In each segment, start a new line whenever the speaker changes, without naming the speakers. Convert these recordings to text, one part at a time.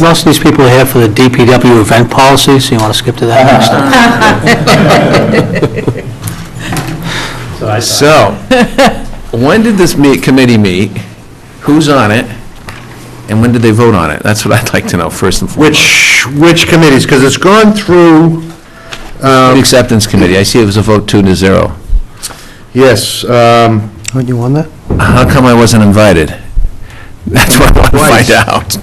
Most of these people are here for the DPW event policy, so you want to skip to that next time?
So, when did this meet, committee meet? Who's on it? And when did they vote on it? That's what I'd like to know, first and foremost.
Which, which committees? Because it's gone through, um,
The Acceptance Committee, I see it was a vote two to zero.
yes, um,
Aren't Oh, you on that?
How come I wasn't invited? That's what I want to find out.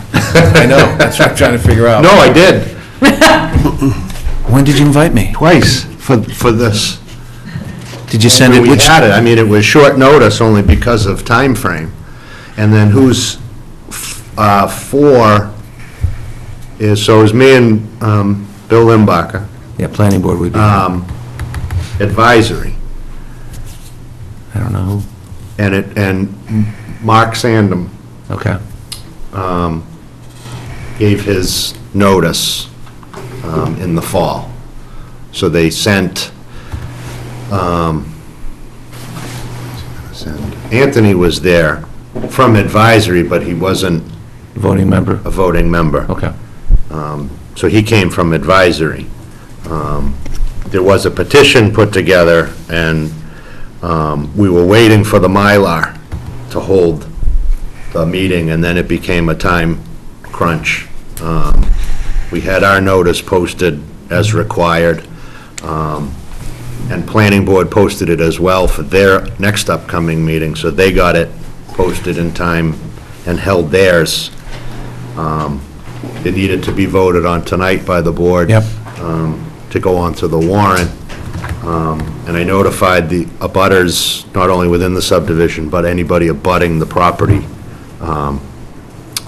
I know, that's what I'm trying to figure out.
no, I did,
When did you invite me?
twice for, for this.
Did you send it,
We
which,
had it, I mean, it was short notice only because of time frame. And then who's, uh, four is, so it was me and, um, Bill Limbacher,
yeah, Planning Board would be, I
um, advisory,
don't know who,
and it, and Mark Sandem
okay.
gave his notice um, in the fall. So they sent, um, send- Anthony was there from advisory, but he wasn't
Voting member,
a voting member.
okay.
So he came from advisory. Um, There was a petition put together, and um, we were waiting for the Mylar to hold the meeting, and then it became a time crunch. Um, We had our notice posted as required, um, and Planning Board posted it as well for their next upcoming meeting, so they got it posted in time and held theirs. Um, It needed to be voted on tonight by the board.
Yep.
um, To go on to the warrant. Um, And I notified the abutters, not only within the subdivision, but anybody abutting the property um,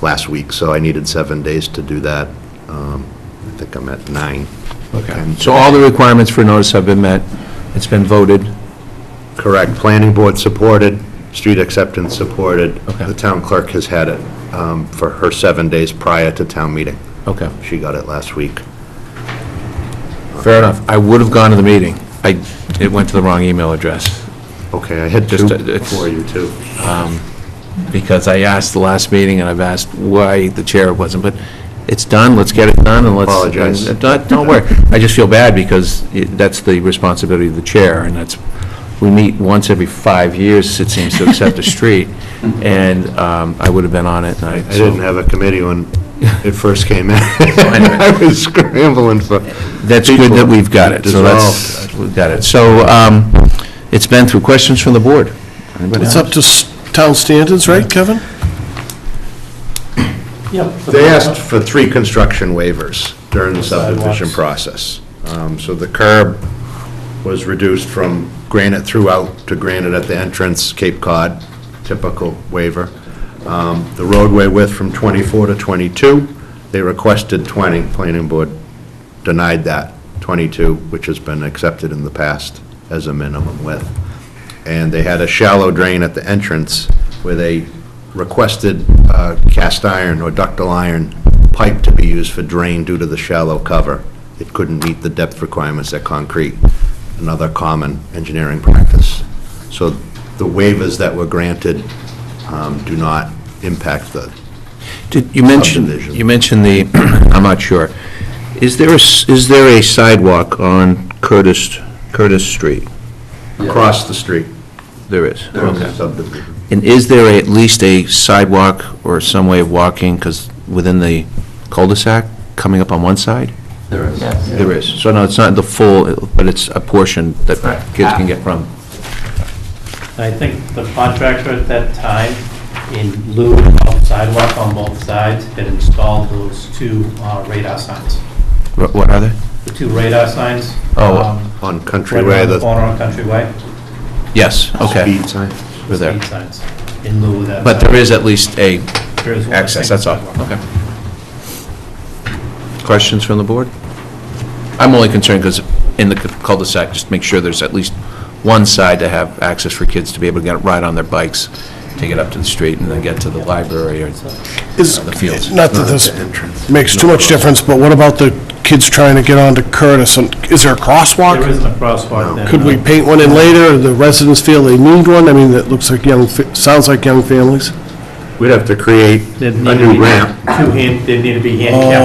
last week, so I needed seven days to do that. Um, I think I'm at nine.
Okay. Um, So all the requirements for notice have been met, it's been voted,
Correct. Planning board supported, street acceptance supported.
Okay.
The town clerk has had it um, for her seven days prior to town meeting.
okay.
She got it last week.
Fair enough. I would have gone to the meeting. I, it went to the wrong email address,
Okay, I had two
Just, uh, it's-
for you, too.
because I asked the last meeting, and I've asked why the chair wasn't, but it's done, let's get it done, and let's...
Apologize.
and Don't, don't worry. I just feel bad, because it- that's the responsibility of the chair, and that's, we meet once every five years, it seems, to accept a street, and um, I would have been on it, and I...
I didn't have a committee when it first came in. I was scrambling for,
That's good that we've got it, so that's, we've got it. So, um, it's been through questions from the board. Anybody
It's
have?
up to s- town standards, right, Kevin?
they asked for three construction waivers during the subdivision process. Um, So the curb was reduced from granite throughout to granite at the entrance, Cape Cod, typical waiver. Um, The roadway width from 24 to 22, they requested 20, planning board denied that, 22, which has been accepted in the past as a minimum width. and they had a shallow drain at the entrance where they requested uh, cast iron or ductile iron pipe to be used for drain due to the shallow cover. It couldn't meet the depth requirements at concrete, another common engineering practice. So the waivers that were granted um, do not impact the,
Did, you mentioned,
Subdivision.
you mentioned the, I'm not sure. Is there a s is there a sidewalk on Curtis, Curtis Street?
across the street.
There is.
There's a subdivision.
And is there a- at least a sidewalk or some way of walking, because within the cul-de-sac, coming up on one side? There is. So no, it's not the full, but it's a portion that kids can get from.
I think the contractor at that time, in lieu of sidewalk on both sides, had installed those two uh, radar signs.
Wh- What are they?
The two radar signs.
Oh,
um,
On
Right around
Countryway,
the
the
corner on Countryway.
Yes, okay.
speed sign.
We're there.
Speed signs, in lieu of that.
But there is at least a
sidewalk. There is one
access,
thing.
that's all, okay. Questions from the board? I'm only concerned because in the cul-de-sac, just make sure there's at least one side to have access for kids to be able to get, ride on their bikes, take it up to the street and then get to the library or
Is,
the fields.
not that this makes too much difference, but what about the kids trying to get onto Curtis? And Is there a
There
crosswalk?
isn't a crosswalk then.
Could we
no.
paint one in later, or the residents feel they need one? I mean, that looks like young, fa- sounds like young families.
We'd have to create
There'd
a
need to be
new ramp.
Oh,
Two hand, there'd need to be handicap